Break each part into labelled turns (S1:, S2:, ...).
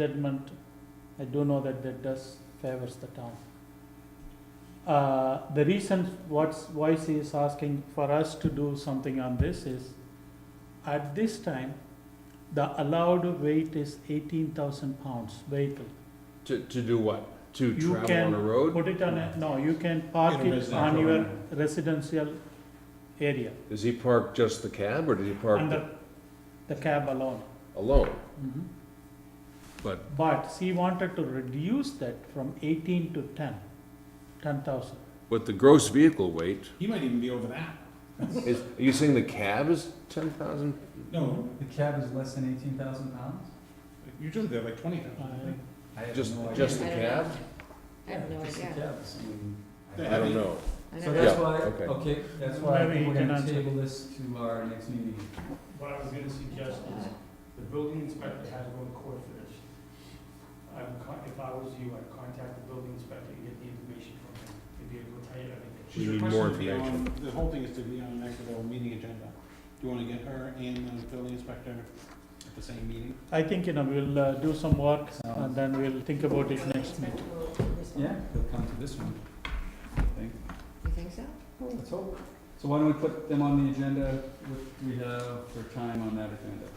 S1: judgment, I do know that that does favors the town. Uh, The reason what's, why she is asking for us to do something on this is, at this time, the allowed weight is eighteen thousand pounds vehicle.
S2: To, to do what? To
S1: You
S2: travel
S1: can
S2: on a road?
S1: Put it on, a no, you can park
S3: In a
S1: it
S3: residential
S1: on your
S3: area.
S1: residential area,
S2: Does he park just the cab or does he park
S1: under the cab alone.
S2: alone?
S1: Mhm.
S2: But
S1: But she wanted to reduce that from eighteen to ten, ten thousand.
S2: with the gross vehicle weight,
S3: He might even be over that.
S2: is, are you saying the cab is ten thousand?
S3: No,
S4: The cab is less than eighteen thousand pounds?
S3: usually they're like twenty thousand.
S4: I have
S2: Just,
S4: no idea.
S2: just the
S5: I don't
S2: cab?
S5: I have no
S4: Yeah, just the
S5: idea.
S4: cabs, I mean,
S3: Yeah.
S2: I don't know.
S5: I
S4: So
S5: don't know.
S4: that's
S2: Yeah,
S4: why,
S2: okay.
S4: okay, that's why I
S1: Maybe
S4: think
S1: you
S4: we're
S1: can
S4: gonna
S1: answer.
S4: table this to our next meeting.
S6: What I was gonna suggest is, the building inspector has to go to court for this. I would con, if I was you, I'd contact the building inspector and get the information from him, if he would tell you everything.
S2: We
S3: She's
S2: need more
S3: requesting to be on, the whole thing is to be on an next level meeting agenda. Do you wanna get her and the building inspector at the same meeting?
S1: I think, you know, we'll uh, do some work and
S4: Sounds-
S1: then we'll think about it next meeting.
S4: Yeah, they'll come to this one, I think.
S5: You think so?
S4: Let's hope. So why don't we put them on the agenda, what we have for time on that agenda?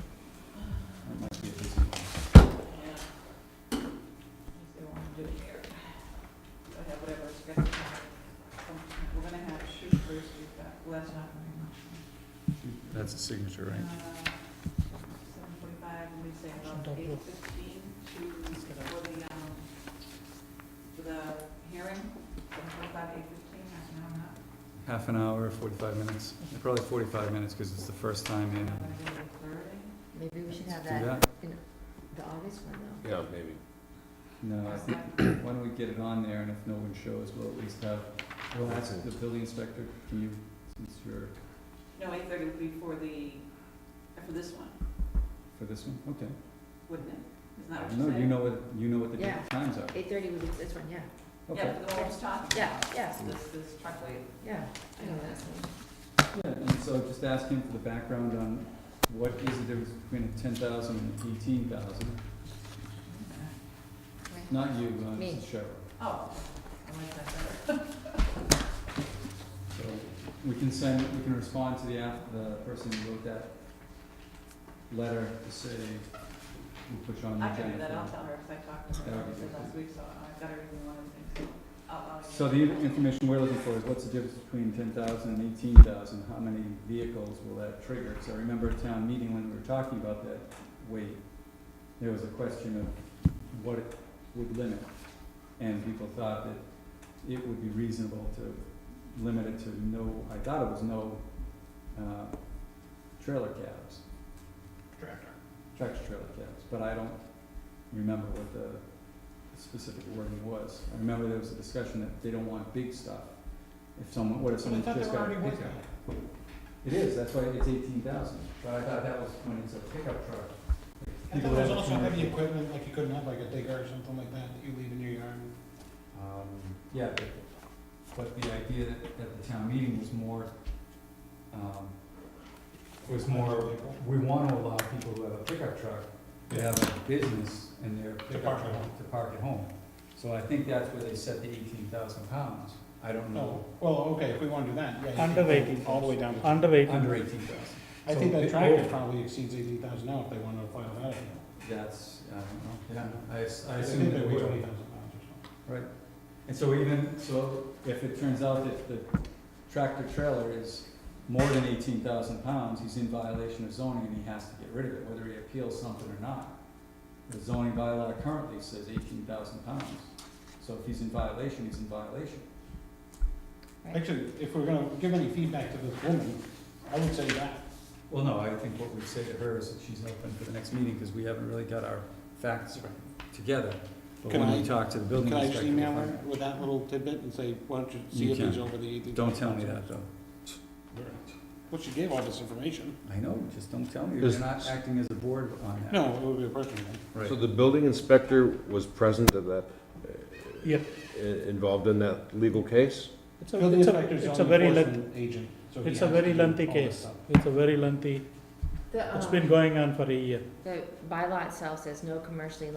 S4: That might be a busy one.
S7: I have whatever it's got. We're gonna have shoot first, we've got, well, that's not very Uh, much.
S4: That's a signature,
S7: Seven forty-five, and we say
S1: Shouldn't
S7: about
S1: I
S7: eight fifteen to, for the, um, for the hearing, seven forty-five, eight fifteen, I don't know,
S4: Half an hour, forty-five minutes, probably forty-five minutes, cause it's the first time
S7: I'm
S4: in.
S7: not gonna do eight thirty.
S5: Maybe we should have
S4: Do
S5: that,
S4: that?
S5: the August one though.
S2: Yeah, maybe.
S4: No, I think Why don't we get it on there, and if no one shows, we'll at least have, we'll ask the building inspector, can you, since you're,
S7: No, eight thirty would be for the, for this one,
S4: for this one, okay.
S7: wouldn't it? Isn't that what you said?
S4: No, you know what, you know what the
S5: Yeah.
S4: different times are,
S5: Eight thirty would be this one, yeah,
S4: okay.
S7: Yeah, for the one I was talking
S5: Yeah,
S7: about.
S5: yeah.
S7: This, this truckload.
S5: yeah, I know that's one.
S4: Yeah, and so just ask him for the background on what is the difference between a ten thousand and eighteen thousand,
S5: Right.
S4: not you, uh,
S5: Me.
S4: Mrs. Cheryl.
S7: Oh, I like that better.
S4: So we can send, we can respond to the app, the person who wrote that letter to say, we'll put you on the
S7: I
S4: agenda.
S7: can do that,
S4: for-
S7: I'll tell her, because I talked to
S4: That
S7: her
S4: would be good.
S7: last week, so I've got everything lined up, so I'll, I'll.
S4: So the in- information we're looking for is what's the difference between ten thousand and eighteen thousand, how many vehicles will that trigger? So I remember at town meeting when we were talking about that weight, there was a question of what it would limit. And people thought that it would be reasonable to limit it to no, I thought it was no, uh, trailer cabs,
S3: Tractor.
S4: tractor trailer cabs, but I don't remember what the specific wording was. I remember there was a discussion that they don't want big stuff. If someone, what if
S3: But I
S4: someone
S3: thought
S4: just
S3: there
S4: got a
S3: already was
S4: pickup? It is, that's why it's eighteen thousand, but I thought that was when it's a pickup truck.
S3: I
S4: People
S3: thought there was
S4: have
S3: also
S4: to-
S3: heavy equipment, like you couldn't have like a digger or something like that, that you leave in your yard.
S4: Um, yeah, but, but the idea that, that the town meeting was more, um, was more, we wanna allow people who have a pickup truck to have a business in their pickup
S3: park at
S4: truck
S3: home.
S4: to park at home. So I think that's where they set the eighteen thousand pounds, I don't
S3: No,
S4: know,
S3: Oh, well, okay, if we wanna do that, yeah. you
S1: Under
S3: can go
S1: eighteen.
S3: All the way down. to-
S1: Under eighteen,
S4: under eighteen thousand.
S3: I think
S4: So
S3: that
S4: it-
S3: tractor
S4: oh.
S3: probably exceeds eighteen thousand now if they wanna file that.
S4: That's, I don't know, yeah, I, s- I
S3: I
S4: assume
S3: think they
S4: that
S3: weigh
S4: would.
S3: twenty thousand pounds or something.
S4: And so even, so if it turns out that the tractor trailer is more than eighteen thousand pounds, he's in violation of zoning and he has to get rid of it, whether he appeals something or not. The zoning bylaw currently says eighteen thousand pounds, so if he's in violation, he's in violation.
S3: Actually, if we're gonna give any feedback to this woman, I would say that.
S4: Well, no, I think what we'd say to her is that she's open for the next meeting, cause we haven't really got our facts together. But
S3: Can
S4: when
S3: I-
S4: we talk to the building
S3: Can I
S4: inspector.
S3: just
S4: we'll
S3: email
S4: find
S3: her
S4: out.
S3: with that little tidbit and say, why don't you
S4: You
S3: see if he's
S4: can.
S3: over the eighteen?
S4: Don't tell me that though.
S3: Well, she gave all this information.
S4: I know, just don't tell me,
S2: Is-
S4: you're not acting as a board on that.
S3: No, it would be a personal one.
S4: Right.
S2: So the building inspector was present at that, uh,
S1: yeah,
S2: i- involved in that legal case?
S1: it's a,
S3: Building
S1: it's a,
S3: inspector's
S1: it's a
S3: zoning
S1: very lengthy,
S3: enforcement agent, so he
S1: it's a
S3: has to
S1: very
S3: do
S1: lengthy
S3: all this
S1: case.
S3: stuff.
S1: It's a very lengthy,
S5: The,
S1: it's
S5: um,
S1: been going on for a year.
S5: The bylaw itself says no commercially